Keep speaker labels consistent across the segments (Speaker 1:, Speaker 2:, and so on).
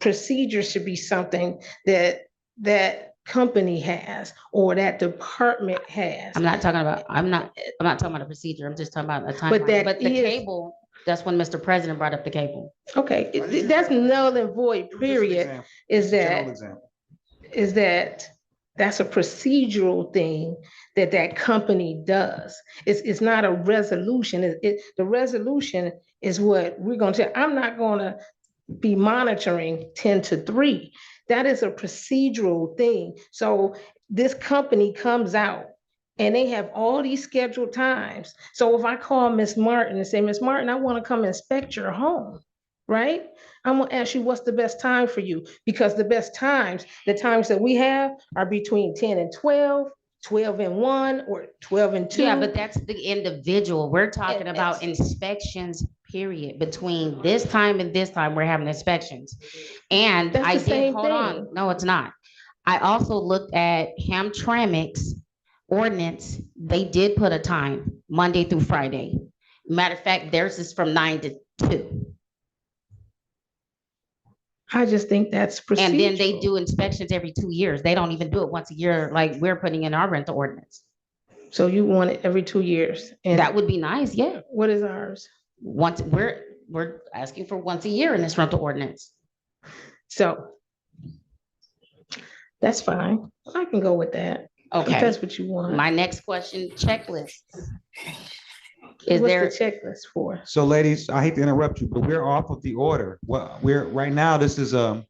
Speaker 1: procedure should be something that that company has or that department has.
Speaker 2: I'm not talking about, I'm not, I'm not talking about a procedure. I'm just talking about a
Speaker 1: But
Speaker 2: timeline.
Speaker 1: that
Speaker 2: But the
Speaker 1: is-
Speaker 2: cable, that's when Mr. President brought up the cable.
Speaker 1: Okay, it- that's null and void, period, is that is that that's a procedural thing that that company does. It's, it's not a resolution. It, it, the resolution is what we're going to, I'm not going to be monitoring 10 to 3. That is a procedural thing. So this company comes out and they have all these scheduled times. So if I call Miss Martin and say, Miss Martin, I want to come inspect your home, right? I'm gonna ask you, what's the best time for you? Because the best times, the times that we have are between ten and 12, 12 and one, or twelve and two.
Speaker 2: Yeah, but that's the individual. We're
Speaker 1: And
Speaker 2: talking about inspections, period. Between this time and this time, we're having inspections. And
Speaker 1: That's
Speaker 2: I
Speaker 1: the
Speaker 2: did,
Speaker 1: same
Speaker 2: hold on,
Speaker 1: thing.
Speaker 2: no, it's not. I also looked at Hamtramck's ordinance. They did put a time, Monday through Friday. Matter of fact, theirs is from nine to two.
Speaker 1: I just think that's procedural.
Speaker 2: And then they do inspections every two years. They don't even do it once a year, like we're putting in our rental ordinance.
Speaker 1: So you want it every two years? And
Speaker 2: That would be nice, yeah.
Speaker 1: what is ours?
Speaker 2: Once, we're, we're asking for once a year in this rental ordinance.
Speaker 1: So that's fine. I can go with that. If
Speaker 2: Okay,
Speaker 1: that's what you want.
Speaker 2: my next question, checklist.
Speaker 1: What's
Speaker 2: Is
Speaker 1: the
Speaker 2: there,
Speaker 1: checklist for?
Speaker 3: So ladies, I hate to interrupt you, but we're off of the order. Well, we're, right now, this is, um,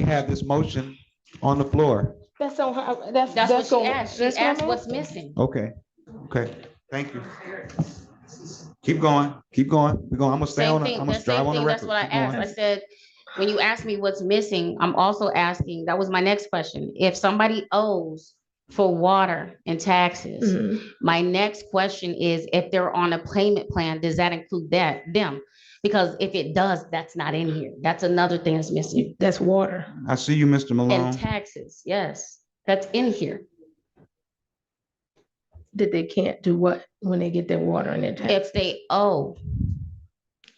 Speaker 1: No.
Speaker 3: have this motion on the floor.
Speaker 1: That's on her, that's.
Speaker 2: that's what she
Speaker 1: on-
Speaker 2: asked. She
Speaker 1: that's my
Speaker 2: asked what's
Speaker 1: motion.
Speaker 2: missing.
Speaker 3: Okay, okay, thank you. Keep going, keep going. We're going, I'm gonna stay
Speaker 2: Same
Speaker 3: on, it.
Speaker 2: thing,
Speaker 3: I'm
Speaker 2: the
Speaker 3: gonna drive
Speaker 2: same
Speaker 3: on the
Speaker 2: thing,
Speaker 3: record.
Speaker 2: that's what I
Speaker 3: Keep going.
Speaker 2: asked. I said, when you ask me what's missing, I'm also asking, that was my next question. If somebody owes for water and taxes,
Speaker 1: Mhm.
Speaker 2: My next question is if they're on a payment plan, does that include that, them? Because if it does, that's not in here. That's another thing that's missing.
Speaker 1: That's water.
Speaker 3: I see you, Mr.
Speaker 2: And
Speaker 3: Malone.
Speaker 2: taxes, yes, that's in here.
Speaker 1: That they can't do what when they get their water and their tax.
Speaker 2: If they owe,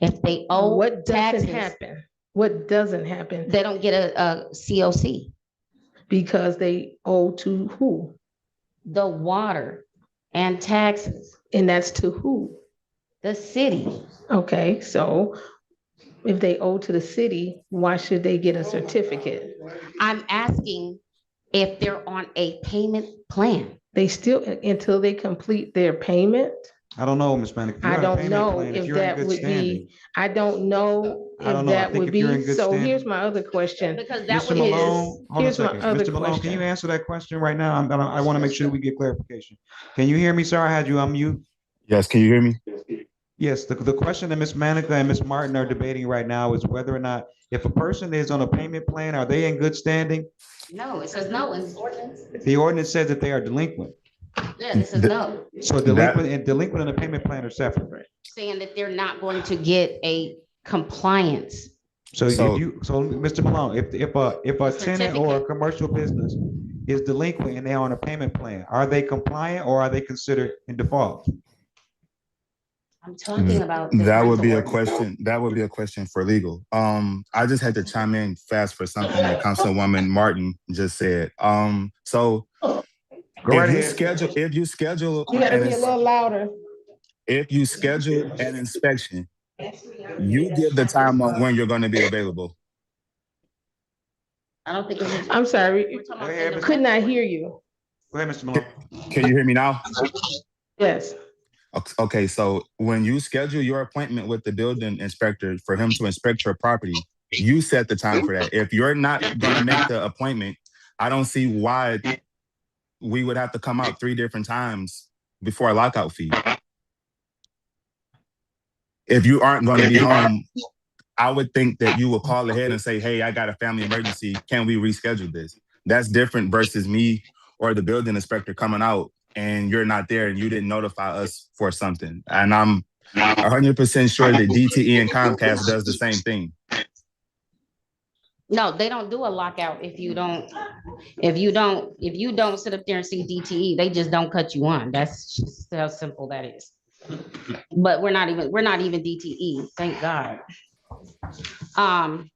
Speaker 2: if they owe,
Speaker 1: What doesn't
Speaker 2: taxes.
Speaker 1: happen? What doesn't happen
Speaker 2: they don't get a, a COC.
Speaker 1: because they owe to who?
Speaker 2: The water and taxes,
Speaker 1: And that's to who?
Speaker 2: the city.
Speaker 1: Okay, so if they owe to the city, why should they get a certificate?
Speaker 2: I'm asking if they're on a payment plan.
Speaker 1: They still, until they complete their payment,
Speaker 3: I don't know, Ms. Manica. if
Speaker 1: I
Speaker 3: you're on a
Speaker 1: don't
Speaker 3: payment
Speaker 1: know
Speaker 3: plan,
Speaker 1: if
Speaker 3: you're in
Speaker 1: that
Speaker 3: good
Speaker 1: would be-
Speaker 3: standing.
Speaker 1: I don't know
Speaker 3: I don't
Speaker 1: if
Speaker 3: know. I
Speaker 1: that
Speaker 3: think
Speaker 1: would
Speaker 3: if you're in
Speaker 1: be,
Speaker 3: good
Speaker 1: so
Speaker 3: standing-
Speaker 1: here's my other question.
Speaker 2: Because that
Speaker 3: Mr.
Speaker 2: would
Speaker 1: Malone,
Speaker 2: be,
Speaker 3: Malone, hold on a
Speaker 1: here's my
Speaker 3: second.
Speaker 1: other
Speaker 3: Mr. Malone, can you
Speaker 1: question.
Speaker 3: answer that question right now? I'm, I'm- I want to make sure we get clarification. Can you hear me? Sorry, I had you on mute.
Speaker 4: Yes, can you hear me?
Speaker 3: Yes, the, the question that Ms. Manica and Ms. Martin are debating right now is whether or not, if a person is on a payment plan, are they in good standing?
Speaker 2: no, it says no in this ordinance.
Speaker 3: The ordinance says that they are delinquent.
Speaker 2: Yeah, this is
Speaker 4: The-
Speaker 2: no.
Speaker 3: So delinquent and delinquent and a payment plan are separate.
Speaker 2: saying that they're not going to get a compliance.
Speaker 3: So if
Speaker 4: So-
Speaker 3: you, so Mr. Malone, if, if a, if a tenant or a commercial business is delinquent and they're on a payment plan, are they compliant or are they considered in default?
Speaker 2: I'm talking about. the
Speaker 4: Mm. That would
Speaker 2: rental
Speaker 4: be a
Speaker 2: ordinance.
Speaker 4: question, that would be a question for legal. Um, I just had to chime in fast for something that Councilwoman Martin just said. Um, so
Speaker 3: Go right
Speaker 4: if you
Speaker 3: ahead.
Speaker 4: schedule, if you schedule,
Speaker 1: You gotta be a
Speaker 4: an-
Speaker 1: little louder.
Speaker 4: if you schedule an inspection, you give the time on when you're gonna be available.
Speaker 2: I don't think. it's-
Speaker 1: I'm sorry,
Speaker 2: we're talking about
Speaker 3: Go ahead,
Speaker 2: in the
Speaker 3: Ms.
Speaker 1: could not
Speaker 2: rental
Speaker 1: hear you.
Speaker 3: Go ahead, Mr. Malone.
Speaker 4: Can you hear me now?
Speaker 1: Yes,
Speaker 4: Ok- Okay, so when you schedule your appointment with the building inspector for him to inspect your property, you set the time for that. If you're not gonna make the appointment, I don't see why we would have to come out three different times before a lockout fee. If you aren't gonna be home, I would think that you will call ahead and say, hey, I got a family emergency. Can we reschedule this? That's different versus me or the building inspector coming out and you're not there and you didn't notify us for something. And I'm 100% sure that DTE and Comcast does the same thing.
Speaker 2: No, they don't do a lockout if you don't, if you don't, if you don't sit up there and see DTE, they just don't cut you on. That's just how simple that is. But we're not even, we're not even DTE, thank God. E, Um,